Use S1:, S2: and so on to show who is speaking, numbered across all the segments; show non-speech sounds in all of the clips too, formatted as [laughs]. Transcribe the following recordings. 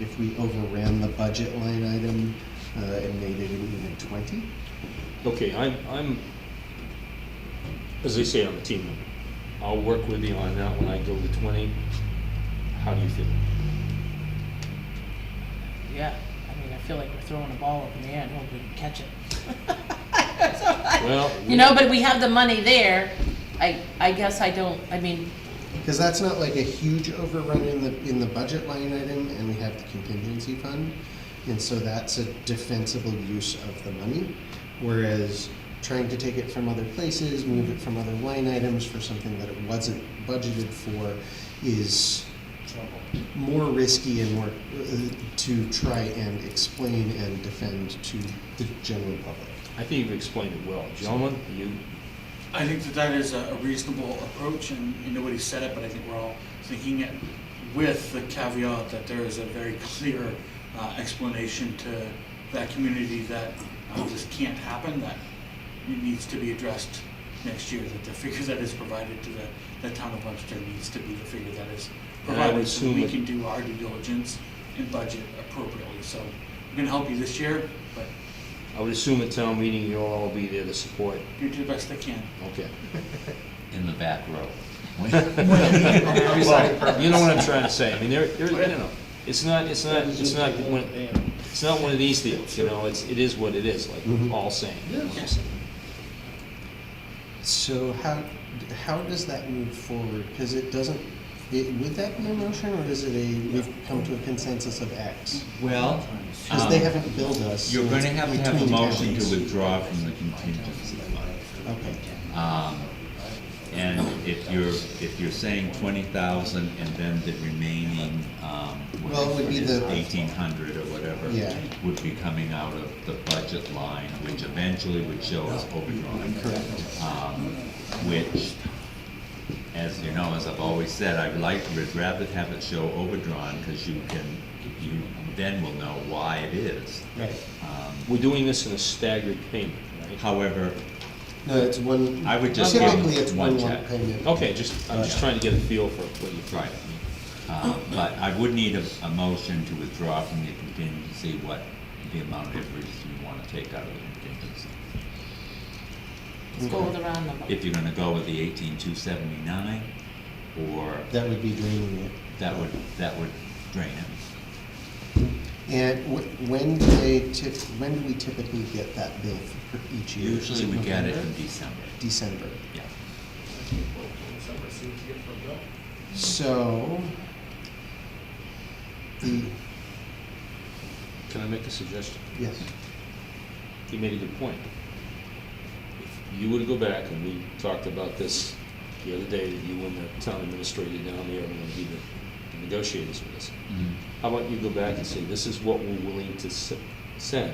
S1: if we overran the budget line item uh, and made it an even twenty.
S2: Okay, I'm, I'm, as they say, I'm a team member. I'll work with you on that when I go to twenty. How do you feel?
S3: Yeah, I mean, I feel like we're throwing a ball up in the air and hoping we can catch it.
S2: Well,
S3: [laughs] You know, but we have the money there. I, I guess I don't, I mean,
S1: Because that's not like a huge overrun in the, in the budget line item, and we have the contingency fund. And so that's a defensible use of the money, whereas trying to take it from other places, move it from other line items for something that it wasn't budgeted for is more risky and more, uh, to try and explain and defend to the general public.
S2: I think you've explained it well. Gentlemen, you,
S4: I think that that is a a reasonable approach, and and nobody said it, but I think we're all thinking it with the caveat that there is a very clear uh, explanation to that community that uh, this can't happen, that it needs to be addressed next year, that the figure that is provided to the, the town of Webster needs to be the figure that is
S2: And I would
S4: provided, so
S2: assume
S4: we
S2: it-
S4: can do our due diligence and budget appropriately. So we're gonna help you this year, but
S2: I would assume at town meeting you'll all be there to support.
S4: you do the best I can.
S2: Okay.
S5: in the back row.
S1: [laughs]
S2: Well, You know what I'm trying to say. I mean, there, there, you know, it's not, it's not, it's not, one- it's not one of these deals, you know, it's, it is what it is, like
S1: Mhm.
S2: all saying.
S4: Yes.
S1: So how, how does that move forward? Because it doesn't, it, would that be a motion or is it a, we've come to a consensus of X?
S5: Well,
S1: Because they haven't billed us.
S5: Um, you're gonna have to have a
S1: Between
S5: motion to
S1: towns.
S5: withdraw from the contingency fund.
S1: Okay,
S5: Um, And if you're, if you're saying twenty thousand and then the remaining, um,
S1: Well, it would be the-
S5: eighteen hundred or whatever,
S1: Yeah.
S5: would be coming out of the budget line, which eventually would show as overdrawn.
S1: correct.
S5: um, which, as you know, as I've always said, I'd like, would rather have it show overdrawn, because you can, you then will know why it is.
S1: Right.
S5: Um,
S2: We're doing this in a staggered payment, right?
S5: However,
S1: No, it's one.
S5: I would just give
S1: Typically, it's
S5: one
S1: one lump
S5: check.
S1: payment.
S2: Okay, just, I'm just trying to get a feel for what you
S5: right, um, but I would need a, a motion to withdraw from the contingency, what the amount of interest you want to take out of the contingency.
S3: let's go with the round number.
S5: If you're gonna go with the eighteen two seventy-nine, or
S1: That would be draining it.
S5: that would, that would drain it.
S1: And wh- when do they tip, when do we typically get that bill for each year? Is
S5: Usually we get it in
S1: November?
S5: December,
S1: December.
S5: yeah.
S1: So, the,
S2: Can I make a suggestion?
S1: yes,
S2: You made a good point. If you were to go back, and we talked about this the other day, that you and the town administrator down there are gonna be the the negotiators with us.
S5: Mhm.
S2: How about you go back and say, this is what we're willing to s- send,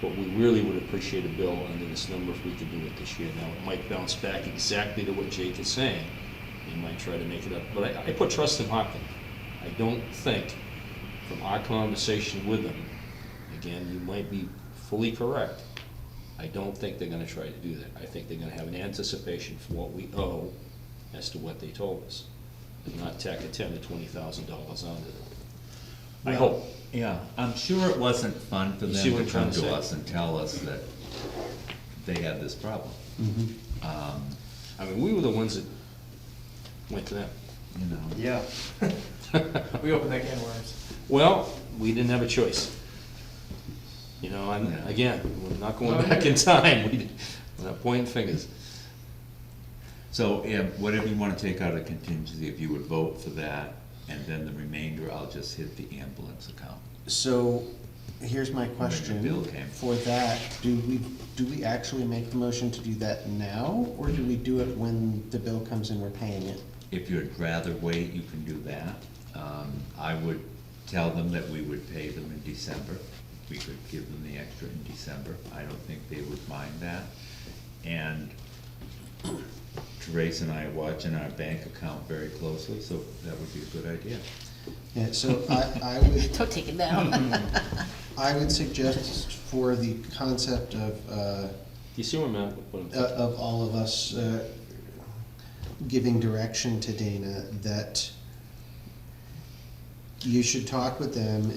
S2: but we really would appreciate a bill under this number if we could do it this year. Now, it might bounce back exactly to what Jake is saying. They might try to make it up, but I, I put trust in Hopkins. I don't think, from our conversation with them, again, you might be fully correct. I don't think they're gonna try to do that. I think they're gonna have an anticipation for what we owe as to what they told us, and not tack a ten to twenty thousand dollars onto it. I
S5: Well,
S2: hope.
S5: Yeah, I'm sure it wasn't fun for
S2: You see what I'm
S5: them to
S2: trying
S5: come
S2: to say?
S5: to us and tell us that they had this problem.
S2: Mm-hmm.
S5: Um,
S2: I mean, we were the ones that went to them.
S5: You know,
S6: Yeah. We opened that can of worms.
S2: Well, we didn't have a choice. You know, and
S5: Yeah.
S2: again, we're not going
S6: No,
S2: back
S6: yeah.
S2: in time. [laughs] We- We're not pointing fingers.
S5: so, yeah, whatever you wanna take out of contingency, if you would vote for that, and then the remainder, I'll just hit the ambulance account.
S1: so here's my
S5: the
S1: question.
S5: bill came.
S1: For that, do we, do we actually make the motion to do that now? Or do we do it when the bill comes and we're paying it?
S5: If you'd rather wait, you can do that. Um, I would tell them that we would pay them in December. We could give them the extra in December. I don't think they would mind that. And Therese and I are watching our bank account very closely, so that would be a good idea.
S1: Yeah, [laughs] so I, I would,
S3: [laughs] Don't take it down.
S1: I would suggest for the concept of, uh,
S2: You see where I'm at with what I'm
S1: uh,
S2: thinking?
S1: of all of us uh, giving direction to Dana that you should talk with them